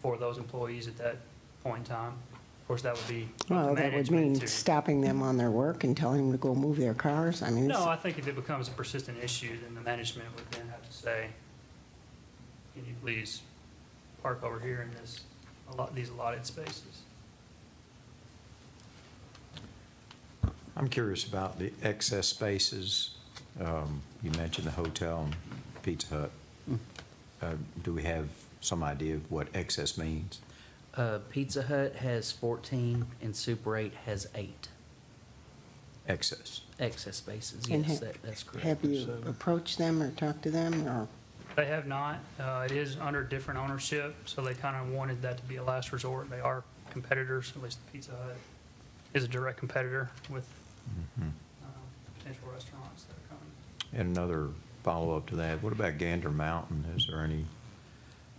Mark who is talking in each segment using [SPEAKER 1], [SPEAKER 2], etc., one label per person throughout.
[SPEAKER 1] for those employees at that point in time. Of course, that would be up to
[SPEAKER 2] Well, that would
[SPEAKER 1] management
[SPEAKER 2] mean
[SPEAKER 1] to-
[SPEAKER 2] stopping them on their work and telling them to go move their cars. I mean,
[SPEAKER 1] No,
[SPEAKER 2] it's-
[SPEAKER 1] I think if it becomes a persistent issue, then the management would then have to say, can you please park over here in this, a lot, these allotted spaces?
[SPEAKER 3] I'm curious about the excess spaces. Um, You mentioned the hotel and Pizza Hut. Uh, Do we have some idea of what excess means?
[SPEAKER 4] Uh, Pizza Hut has 14 and Super 8 has 8
[SPEAKER 3] Excess.
[SPEAKER 4] excess spaces.
[SPEAKER 2] And
[SPEAKER 4] Yes,
[SPEAKER 2] ha-
[SPEAKER 4] that, that's correct.
[SPEAKER 2] have you
[SPEAKER 4] So-
[SPEAKER 2] approached them or talked to them or?
[SPEAKER 1] They have not, uh, it is under different ownership, so they kind of wanted that to be a last resort. They are competitors, at least Pizza Hut is a direct competitor with, um, potential restaurants that are coming.
[SPEAKER 3] And another follow-up to that, what about Gander Mountain? Is there any,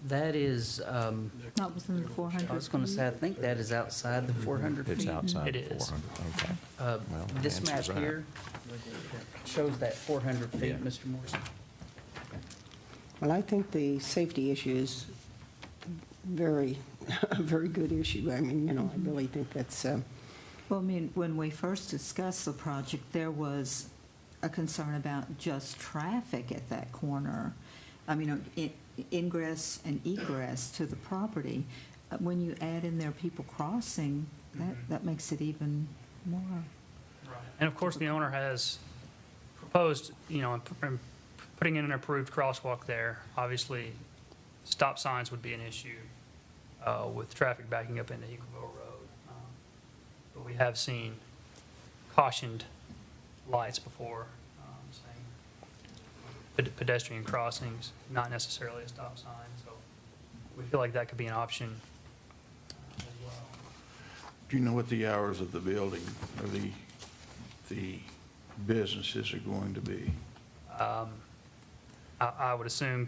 [SPEAKER 4] That is, um,
[SPEAKER 5] Not within the 400.
[SPEAKER 4] I was going to say, I think that is outside the 400
[SPEAKER 3] Mm-hmm. it's
[SPEAKER 4] feet.
[SPEAKER 3] outside
[SPEAKER 1] It is.
[SPEAKER 3] 400? Okay.
[SPEAKER 4] Uh,
[SPEAKER 3] Well,
[SPEAKER 4] This
[SPEAKER 3] the
[SPEAKER 4] map
[SPEAKER 3] answer's right.
[SPEAKER 4] here shows that 400
[SPEAKER 3] Yeah.
[SPEAKER 4] feet, Mr. Morrison.
[SPEAKER 2] Well, I think the safety issue is very, a very good issue. I mean, you know, I really think that's, uh,
[SPEAKER 5] Well, I mean, when we first discussed the project, there was a concern about just traffic at that corner. I mean, in- ingress and egress to the property. Uh, When you add in there people crossing, that,
[SPEAKER 4] Mm-hmm.
[SPEAKER 5] that makes it even more.
[SPEAKER 1] Right. And of course, the owner has proposed, you know, and putting in an approved crosswalk there. Obviously, stop signs would be an issue uh, with traffic backing up into Eagleville Road. Um, But we have seen cautioned lights before, um, saying ped- pedestrian crossings, not necessarily a stop sign. So we feel like that could be an option uh, as well.
[SPEAKER 6] Do you know what the hours of the building, or the, the businesses are going to be?
[SPEAKER 1] I I would assume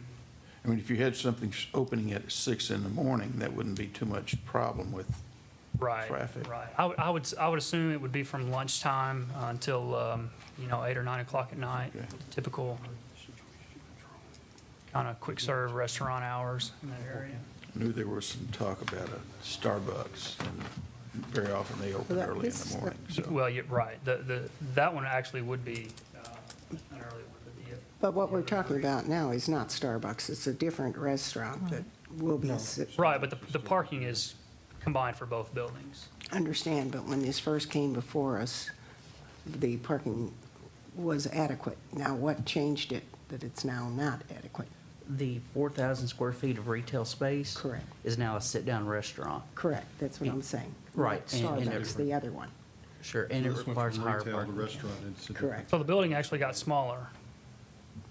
[SPEAKER 6] I mean, if you had something s- opening at six in the morning, that wouldn't be too much problem with,
[SPEAKER 1] Right,
[SPEAKER 6] traffic.
[SPEAKER 1] right. I would, I would, s- I would assume it would be from lunchtime uh, until, um, you know, eight or nine o'clock at night,
[SPEAKER 6] Okay.
[SPEAKER 1] typical kind of quick serve restaurant hours in that area.
[SPEAKER 6] I knew there was some talk about a Starbucks, and very often they open
[SPEAKER 2] Well, that-
[SPEAKER 6] early in
[SPEAKER 2] this-
[SPEAKER 6] the morning, so.
[SPEAKER 1] Well, yeah, right. The, the, that one actually would be, uh, an early one, but the, uh,
[SPEAKER 2] but what we're talking about now is not Starbucks. It's a different restaurant that will be, s-
[SPEAKER 1] right, but the, the parking is combined for both buildings.
[SPEAKER 2] understand, but when this first came before us, the parking was adequate. Now, what changed it that it's now not adequate?
[SPEAKER 4] The 4,000 square feet of retail space.
[SPEAKER 2] Correct.
[SPEAKER 4] Is now a sit-down restaurant.
[SPEAKER 2] Correct, that's what I'm saying.
[SPEAKER 4] Right,
[SPEAKER 2] Not
[SPEAKER 4] and- and
[SPEAKER 2] Starbucks, the other one.
[SPEAKER 4] Sure, and it
[SPEAKER 7] This went
[SPEAKER 4] requires
[SPEAKER 7] from
[SPEAKER 4] higher
[SPEAKER 7] retail to
[SPEAKER 4] parking.
[SPEAKER 7] Restaurant, it's a different-
[SPEAKER 2] Correct.
[SPEAKER 1] So the building actually got smaller,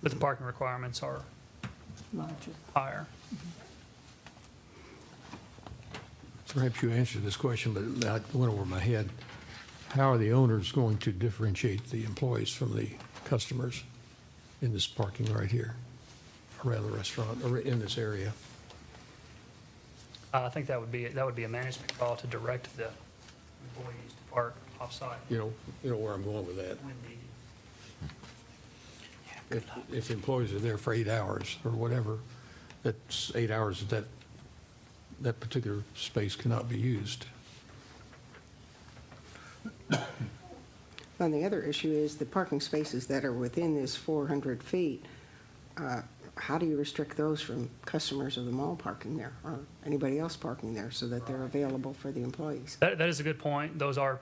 [SPEAKER 1] but the parking requirements are
[SPEAKER 5] Larger.
[SPEAKER 1] higher.
[SPEAKER 8] Perhaps you answered this question, but it went over my head. How are the owners going to differentiate the employees from the customers in this parking right here, around the restaurant, or in this area?
[SPEAKER 1] Uh, I think that would be, that would be a management call to direct the employees to park offsite.
[SPEAKER 8] You know, you know where I'm going with that.
[SPEAKER 1] when needed.
[SPEAKER 8] If- If employees are there for eight hours or whatever, that's eight hours that that particular space cannot be used.
[SPEAKER 2] And the other issue is the parking spaces that are within this 400 feet, uh, how do you restrict those from customers of the mall parking there or anybody else parking there so that they're available for the employees?
[SPEAKER 1] That, that is a good point. Those are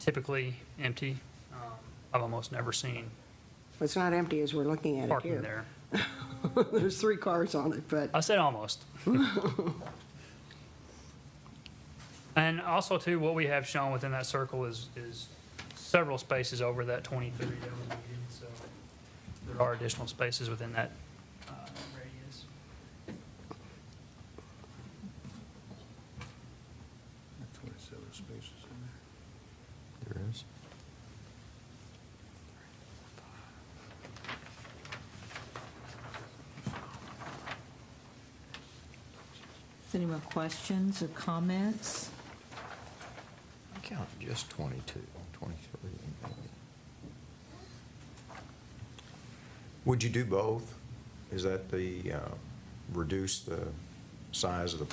[SPEAKER 1] typically empty. Um, I've almost never seen
[SPEAKER 2] Well, It's not empty as we're looking at it
[SPEAKER 1] parking
[SPEAKER 2] here.
[SPEAKER 1] there.
[SPEAKER 2] There's three cars on it, but
[SPEAKER 1] I said almost. And also too, what we have shown within that circle is, is several spaces over that 23 that was needed. So there are additional spaces within that uh, radius.
[SPEAKER 6] Twenty-seven spaces in there.
[SPEAKER 3] There is.
[SPEAKER 5] Is Any more questions or comments?
[SPEAKER 3] I counted just 22, 23. Would you do both? Is that the, uh, reduce the size of the